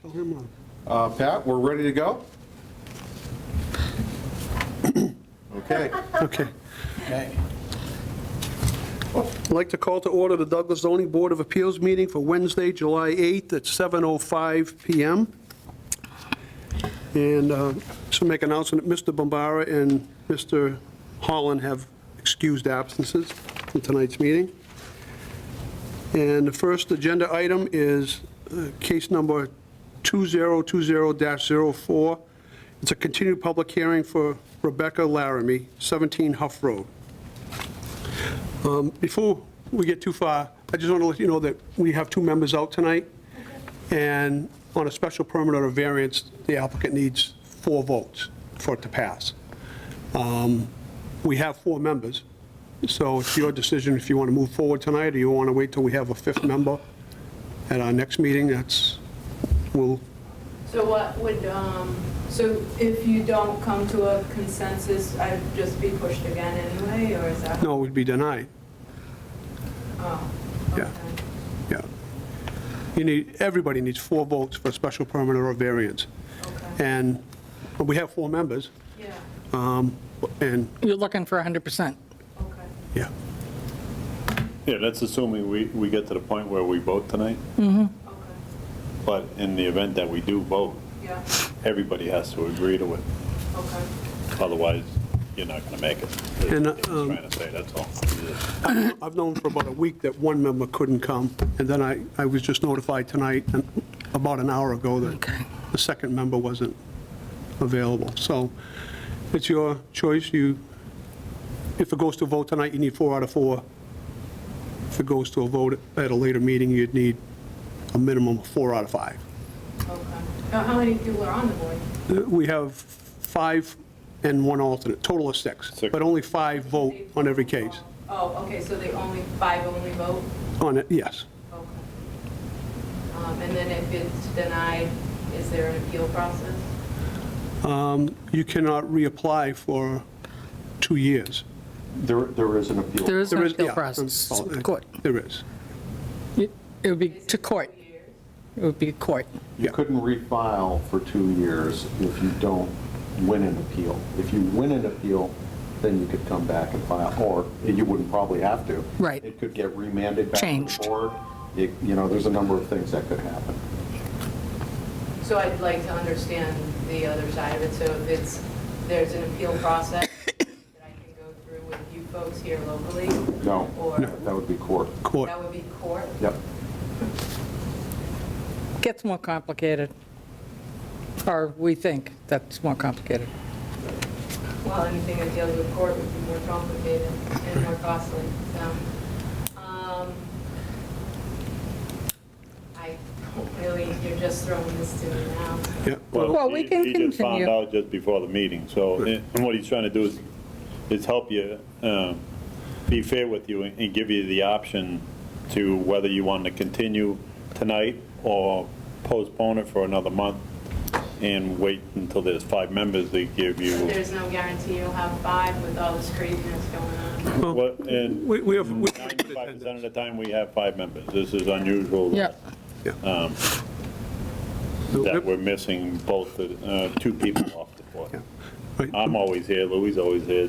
Tell him off. Uh, Pat, we're ready to go? Okay. Okay. I'd like to call to order the Douglas zoning board of appeals meeting for Wednesday, July 8th at 7:05 PM. And uh, just to make an announcement, Mr. Bombara and Mr. Holland have excused absences in tonight's meeting. And the first agenda item is uh, case number 2020-04. It's a continued public hearing for Rebecca Laramie, 17 Huff Road. Um, Before we get too far, I just want to let you know that we have two members out tonight, and on a special permit or a variance, the applicant needs four votes for it to pass. Um, We have four members, so it's your decision if you want to move forward tonight, or you want to wait till we have a fifth member at our next meeting, that's, we'll, So what would, um, so if you don't come to a consensus, I'd just be pushed again anyway, or is that? no, we'd be denied. Oh, Yeah. okay. Yeah. You need, everybody needs four votes for a special permit or a variance. Okay. And we have four members, Yeah, um, and, You're looking for 100%. okay. yeah, Yeah, that's assuming we, we get to the point where we vote tonight, Okay. but in the event that we do vote, Yeah, everybody has to agree to it, okay. otherwise you're not gonna make it. And, That's what I'm um, Trying to say, that's all. I've known for about a week that one member couldn't come, and then I, I was just notified tonight, and about an hour ago, that Okay. the second member wasn't available. So it's your choice, you, if it goes to a vote tonight, you need four out of four. If it goes to a vote at a later meeting, you'd need a minimum of four out of five. Okay. Now, how many people are on the board? Uh, We have five and one alternate, total of six, Six. but only five vote on every case. Oh, okay, so they only, five only vote? On it, yes. Okay. Um, And then if it's denied, is there an appeal process? You cannot reapply for two years. There, there is an appeal. There is There no is- appeal yeah, process, oh, uh, court. There is. It it would be Is it to court, two years? it would be court. You couldn't refile for two years if you don't win an appeal. If you win an appeal, then you could come back and file, or you wouldn't probably have to. Right. It could get remanded back to Changed. the board. It- You know, there's a number of things that could happen. So I'd like to understand the other side of it, so if it's, there's an appeal process that I can go through with you folks here locally? No, Or that would be court. Court. that would be court? Yep. Gets more complicated, or we think that's more complicated. Well, anything that deals with court would be more complicated and more costly, so. um, I don't really, you're just throwing this to me now. Yeah. Well, we he- can He just found continue. out just before the meeting, so, eh, and what he's trying to do is, is help you, um, be fair with you and and give you the option to whether you want to continue tonight or postpone it for another month and wait until there's five members that give So you. There's no guarantee you'll have five with all this craziness going on. What- And We we have, we- 95% of the time, we have five members. This is unusual. that- Yeah, That we're missing both, the uh, two people off the board. Right. I'm always here, Louis always here,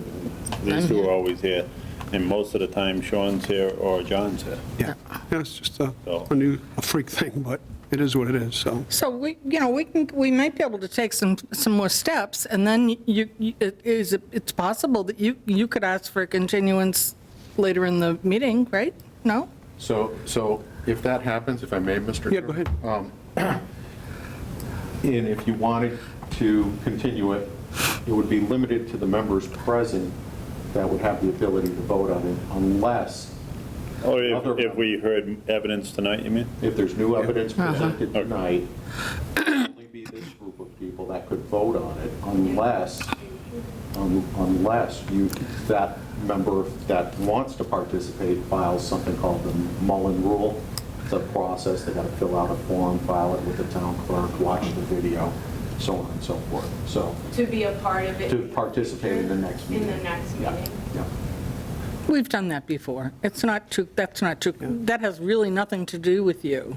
these two are always here, and most of the time Sean's here or John's here. yeah, Yeah, it's just a, So- a new, a freak thing, but it is what it is, so. so we, you know, we can, we might be able to take some, some more steps, and then you, you- it is, it's possible that you, you could ask for a continuance later in the meeting, right? No? So, so if that happens, if I may, Mr. Yeah, go ahead. Um, And if you wanted to continue it, it would be limited to the members present that would have the ability to vote on it unless, Or if, if we heard evidence tonight, you mean? if there's new evidence presented tonight, it'd only be this group of people that could vote on it unless, un- unless you, that member that wants to participate files something called the Mullen Rule. It's a process, they gotta fill out a form, file it with the town clerk, watch the video, so on and so forth. So To be a part of it. to participate in the next In meeting. the next Yeah, meeting. yeah. We've done that before. It's not too, that's not too, that has really nothing to do with you.